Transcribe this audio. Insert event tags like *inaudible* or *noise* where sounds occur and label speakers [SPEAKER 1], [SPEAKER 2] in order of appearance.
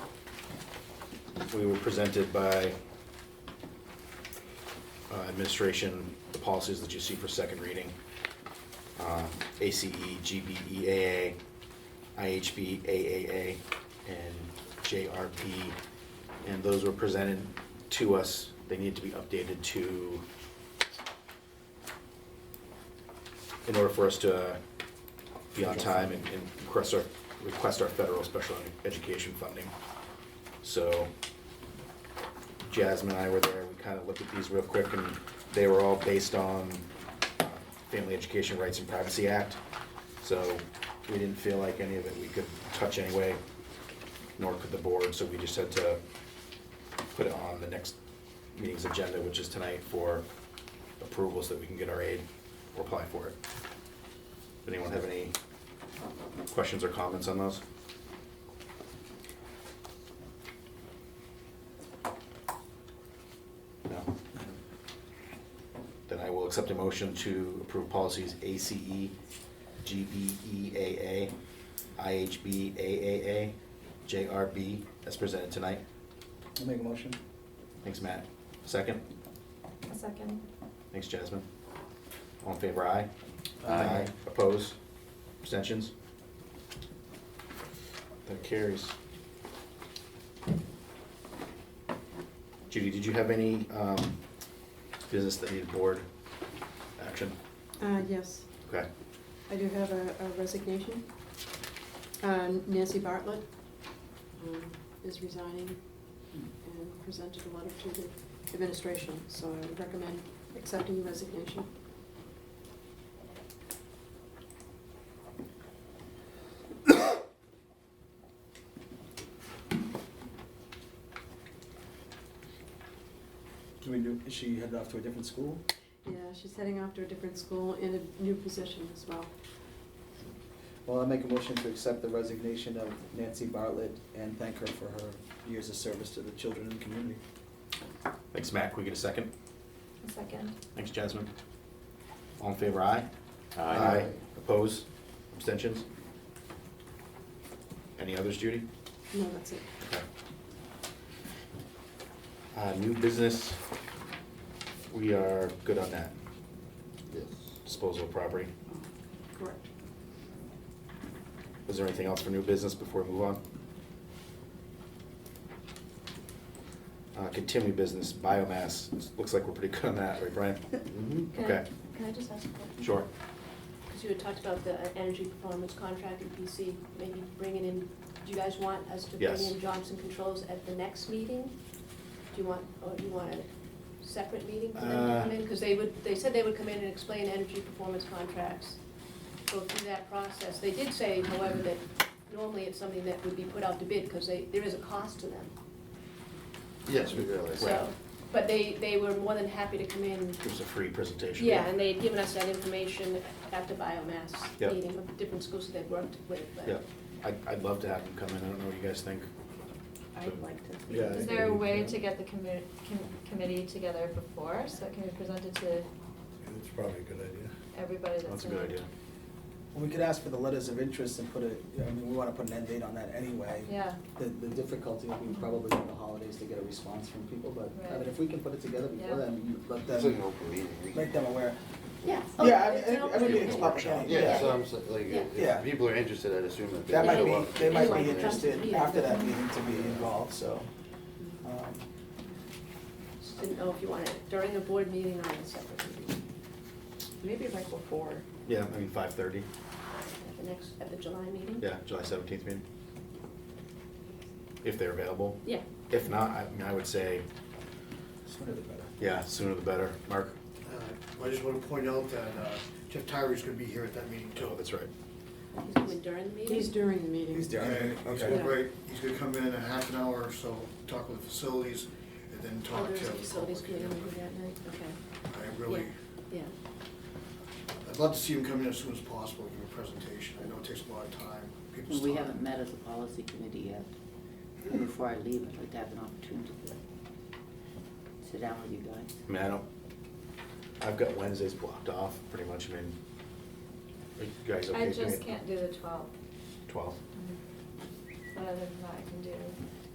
[SPEAKER 1] we were presented by uh, administration, the policies that you see for second reading. uh, ACE, E GBEAA, IHB, AAA, and JRP. And those were presented to us. They need to be updated to, in order for us to uh, be on time and and request our, request our federal special education funding. So Jasmine and I were there, we kind of looked at these real quick, and they were all based on uh, Family Education Rights and Privacy Act. So we didn't feel like any of it we could touch anyway, nor could the board, so we just had to put it on the next meeting's agenda, which is tonight, for approval so that we can get our aid or apply for it. Does Anyone have any questions or comments on those? No? Then I will accept a motion to approve policies E, ACE, E GBEAA, IHBAAA, JRB as presented tonight.
[SPEAKER 2] I'll make a motion.
[SPEAKER 1] Thanks, Matt. Second?
[SPEAKER 3] A second.
[SPEAKER 1] Thanks, Jasmine. All in favor, aye?
[SPEAKER 2] Aye.
[SPEAKER 1] Oppose? Abstentions? That carries. Judy, did you have any um, business that needed board action?
[SPEAKER 4] Uh, yes,
[SPEAKER 1] Okay,
[SPEAKER 4] I do have a a resignation. Uh, Nancy Bartlett um, is resigning and presented a letter to the administration, so I would recommend accepting the resignation.
[SPEAKER 2] Do we do, is she headed off to a different school?
[SPEAKER 4] Yeah, she's heading off to a different school in a new position as well.
[SPEAKER 2] Well, I'll make a motion to accept the resignation of Nancy Bartlett and thank her for her years of service to the children and community.
[SPEAKER 1] thanks, Matt. Can we get a second?
[SPEAKER 3] A second.
[SPEAKER 1] Thanks, Jasmine. All in favor, aye? Oppose? Abstentions? Any others, Judy?
[SPEAKER 4] No, that's it.
[SPEAKER 1] Okay. Uh, new business, we are good on that,
[SPEAKER 5] Yes.
[SPEAKER 1] disposal of property.
[SPEAKER 4] Correct.
[SPEAKER 1] Is there anything else for new business before we move on? Uh, continue business, biomass, It's- looks like we're pretty good on that, right,
[SPEAKER 5] *laughs*
[SPEAKER 1] Brian?
[SPEAKER 6] Mm-hmm. Can I-
[SPEAKER 1] Okay.
[SPEAKER 6] Can I just ask a question?
[SPEAKER 1] Sure.
[SPEAKER 6] Because you had talked about the uh, energy performance contract at BC, maybe bringing in, do you guys want us to bring
[SPEAKER 1] Yes.
[SPEAKER 6] in Johnson Controls at the next meeting? Do you want, or do you want a separate meeting for them
[SPEAKER 1] Uh.
[SPEAKER 6] to come in? Because they would, they said they would come in and explain energy performance contracts, go through that process. They did say, however, that normally it's something that would be put out to bid because they, there is a cost to them.
[SPEAKER 5] Yes, we realize that.
[SPEAKER 6] So, but they, they were more than happy to come in
[SPEAKER 1] Gives a free presentation.
[SPEAKER 6] Yeah, and they'd given us that information at the biomass
[SPEAKER 1] Yep.
[SPEAKER 6] meeting of different schools that they'd worked with,
[SPEAKER 1] Yeah,
[SPEAKER 6] but
[SPEAKER 1] I'd, I'd love to have them come in, I don't know what you guys think.
[SPEAKER 6] I'd like to.
[SPEAKER 5] Yeah, I
[SPEAKER 3] Is
[SPEAKER 5] think
[SPEAKER 3] there a
[SPEAKER 5] we-
[SPEAKER 3] way to get the commi- com- committee together before, so it can be presented to
[SPEAKER 5] It's probably a good idea.
[SPEAKER 3] everybody that's in?
[SPEAKER 1] That's a good
[SPEAKER 3] it?
[SPEAKER 1] idea.
[SPEAKER 2] Well, we could ask for the letters of interest and put a, I mean, we wanna put an end date on that anyway.
[SPEAKER 3] Yeah,
[SPEAKER 2] The, the difficulty will be probably in the holidays to get a response from people, but, I mean,
[SPEAKER 3] Right.
[SPEAKER 2] if we can put it together before
[SPEAKER 3] Yeah.
[SPEAKER 2] then, you let
[SPEAKER 5] It's like an
[SPEAKER 2] them,
[SPEAKER 5] open meeting. We-
[SPEAKER 2] make them aware.
[SPEAKER 6] Yeah.
[SPEAKER 2] Yeah, I
[SPEAKER 6] Okay,
[SPEAKER 2] mean, every-
[SPEAKER 6] sounds
[SPEAKER 2] every
[SPEAKER 6] good.
[SPEAKER 2] meeting's public anyway.
[SPEAKER 5] Yeah, so I'm, sa- like, if-
[SPEAKER 2] Yeah.
[SPEAKER 5] if people are interested, I'd assume that they
[SPEAKER 2] That might
[SPEAKER 5] show
[SPEAKER 2] be,
[SPEAKER 5] up.
[SPEAKER 2] they might be
[SPEAKER 6] Yeah.
[SPEAKER 2] interested
[SPEAKER 6] Yeah.
[SPEAKER 2] after that meeting to be involved, so. um,
[SPEAKER 6] Just didn't know if you wanted it during a board meeting or in a separate meeting,
[SPEAKER 7] Maybe like before.
[SPEAKER 1] Yeah, I mean, five thirty,
[SPEAKER 6] at the next, at the July meeting?
[SPEAKER 1] yeah, July seventeenth meeting. If they're available.
[SPEAKER 6] Yeah,
[SPEAKER 1] If not, I mean, I would say,
[SPEAKER 2] Sooner the better.
[SPEAKER 1] yeah, sooner the better. Mark?
[SPEAKER 8] Uh, I just want to point out that uh, Jeff Tyree's going to be here at that meeting too.
[SPEAKER 1] Oh, that's right.
[SPEAKER 6] he's coming during the meeting?
[SPEAKER 4] He's during the meeting.
[SPEAKER 2] He's down.
[SPEAKER 8] And he's
[SPEAKER 2] Okay.
[SPEAKER 8] gonna break- he's going to come in in a half an hour or so, talk with facilities, and then
[SPEAKER 6] Oh,
[SPEAKER 8] talk to.
[SPEAKER 6] there's a
[SPEAKER 8] the
[SPEAKER 6] facilities
[SPEAKER 8] public.
[SPEAKER 6] committee meeting that night, okay,
[SPEAKER 8] I really,
[SPEAKER 6] yeah.
[SPEAKER 8] I'd love to see him come in as soon as possible, give a presentation. I know it takes a lot of time, people's time.
[SPEAKER 7] We haven't met as a policy committee yet. And Before I leave, I'd like to have an opportunity to sit down with you guys.
[SPEAKER 1] I mean, I don't, I've got Wednesdays blocked off, pretty much, I mean, are you guys okay?
[SPEAKER 3] I
[SPEAKER 1] doing
[SPEAKER 3] just
[SPEAKER 1] it
[SPEAKER 3] can't do the twelve.
[SPEAKER 1] Twelve,
[SPEAKER 3] But other than that, I can do